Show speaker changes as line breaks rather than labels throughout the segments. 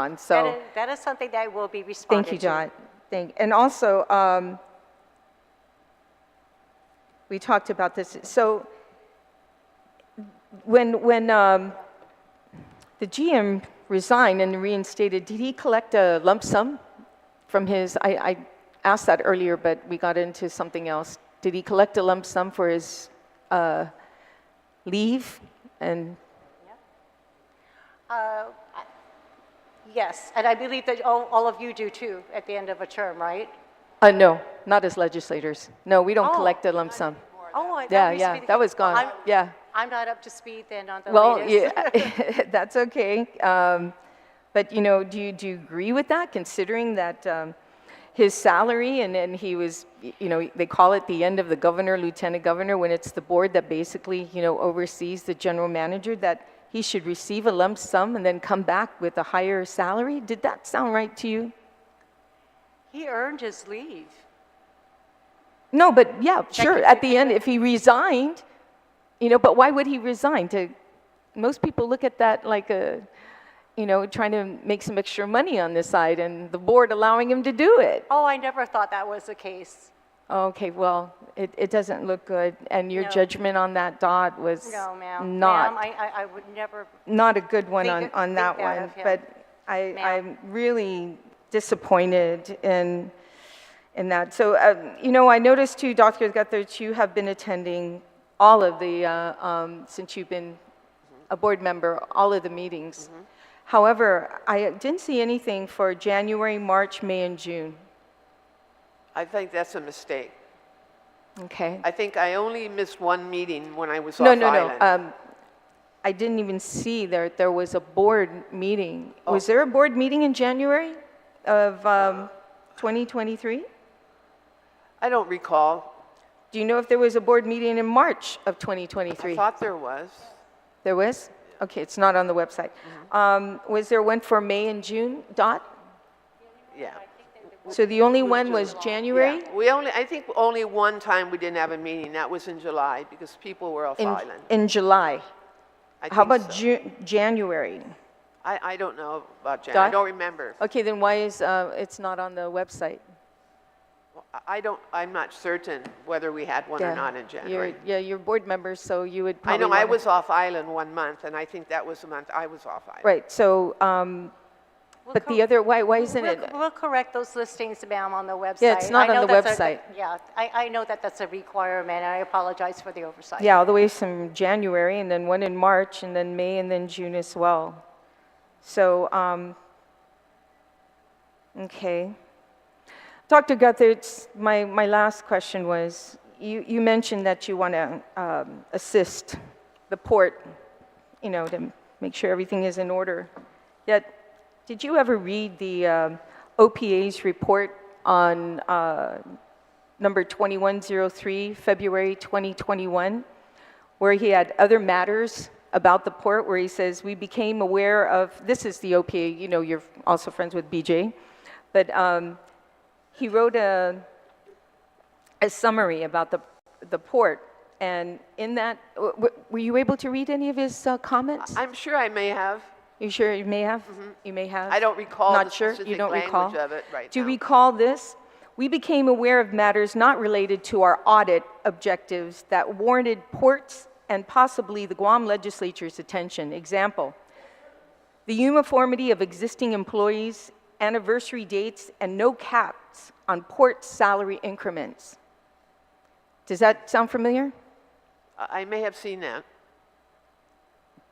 on,
That
so,
is- That is something that will be responded
thank
to.
you, John. Thank, and also, um, we talked about this, so, when, when, um, the GM resigned and reinstated, did he collect a lump sum from his, I, I asked that earlier, but we got into something else. Did he collect a lump sum for his, uh, leave? And,
Uh, I- Yes, and I believe that all all of you do too, at the end of a term, right?
uh, no, not as legislators. No, we don't
Oh.
collect a lump sum.
Oh, I- that
Yeah,
used to be
yeah,
the
that
case.
was
Well,
gone,
I'm-
yeah.
I'm not up to speed then on the
Well,
latest.
yeah, that's okay. Um, but you know, do you, do you agree with that, considering that um, his salary and then he was, y- you know, they call it the end of the governor, lieutenant governor, when it's the board that basically, you know, oversees the general manager, that he should receive a lump sum and then come back with a higher salary? Did that sound right to you?
He earned his leave.
No, but yeah, sure.
could
At
be
the end, if he resigned, you know, but why would he resign? To most people look at that like a, you know, trying to make some extra money on this side, and the board allowing him to do it.
Oh, I never thought that was the case.
Okay, well, it, it doesn't look good, and your
No.
judgment on that dot was
No, ma'am.
not
Ma'am, I- I I would never,
not a good one on,
Think-
on
think
that
that
one,
of him.
but I, I'm
Ma'am.
really disappointed in, in that. So, um, you know, I noticed too, Dr. Guthridge, you have been attending all of the, uh, um, since you've been a board member, all of the meetings.
Mm-hmm.
However, I didn't see anything for January, March, May, and June.
I think that's a mistake.
Okay?
I think I only missed one meeting when I was off
No, no, no.
island.
Um, I didn't even see there, there was a board meeting.
Oh.
Was there a board meeting in January of um, 2023?
I don't recall.
Do you know if there was a board meeting in March of
I
2023?
thought there was.
There was? Okay, it's not on the website.
Mm-hmm.
Um, Was there one for May and June, Dot?
Yeah.
So the only one was January?
Yeah. We only, I think only one time we didn't have a meeting. That was in July because people were off
In
island.
In July?
I
How
think
about
so.
Ju- January?
I, I don't know about Jan. I
Doc?
don't remember.
Okay, then why is, uh, it's not on the website?
I- I don't, I'm not certain whether we had one
Yeah.
or not in
You're-
January.
Yeah, you're board members, so you would
I
probably
know I
wanna-
was off island one month and I think that was the month I was off island.
Right, so, um,
We'll
but the
co-
other, why, why isn't
we'll
it?
we'll correct those listings, ma'am, on the website.
Yeah, it's not on
I know
the
that's a-
website.
Yeah, I I know that that's a requirement, and I apologize for the oversight.
Yeah, all the way from January, and then one in March, and then May, and then June as well. So, um, okay. Dr. Guthertz, my, my last question was, you, you mentioned that you want to um, assist the port, you know, to make sure everything is in order. Yet, did you ever read the um, OPA's report on uh, number 2103, February 2021, where he had other matters about the port, where he says, "We became aware of," this is the OPA, you know, you're also friends with BJ, but um, he wrote a, a summary about the, the port, and in that, w- w- were you able to read any of his uh, comments?
I'm sure I may have.
You sure you may have? You may have?
Mm-hmm. I don't recall
Not
the
sure? You
specific
don't
language
recall?
of it right
Do you
now.
recall this? We became aware of matters not related to our audit objectives that warranted ports and possibly the Guam legislature's attention. Example, the uniformity of existing employees, anniversary dates, and no caps on port salary increments. Does that sound familiar?
I I may have seen that.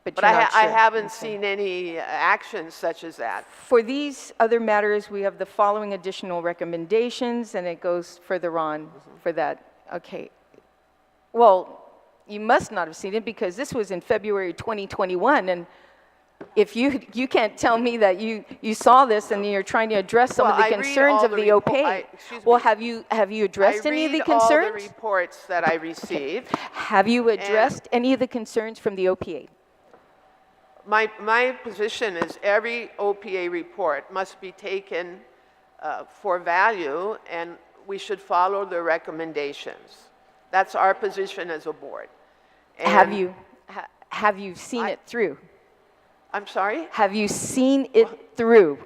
But
you're
I,
not
ha- I
sure.
haven't seen any uh, action such as that.
For these other matters, we have the following additional recommendations, and it goes further on for that. Okay. Well, you must not have seen it because this was in February 2021, and if you, you can't tell me that you, you saw this and you're trying to address some of
Well,
the
I read
concerns
all
of
the
the
repo-
OPA.
I- excuse
Well,
me.
have you, have you
I
addressed any of the
read all the
concerns?
reports that I receive.
Have you addressed any of the concerns from the OPA?
My, my position is every OPA report must be taken uh, for value, and we should follow the recommendations. That's our position as a board.
Have
And
you, ha- have you seen
I-
it through?
I'm sorry?
Have you seen it through?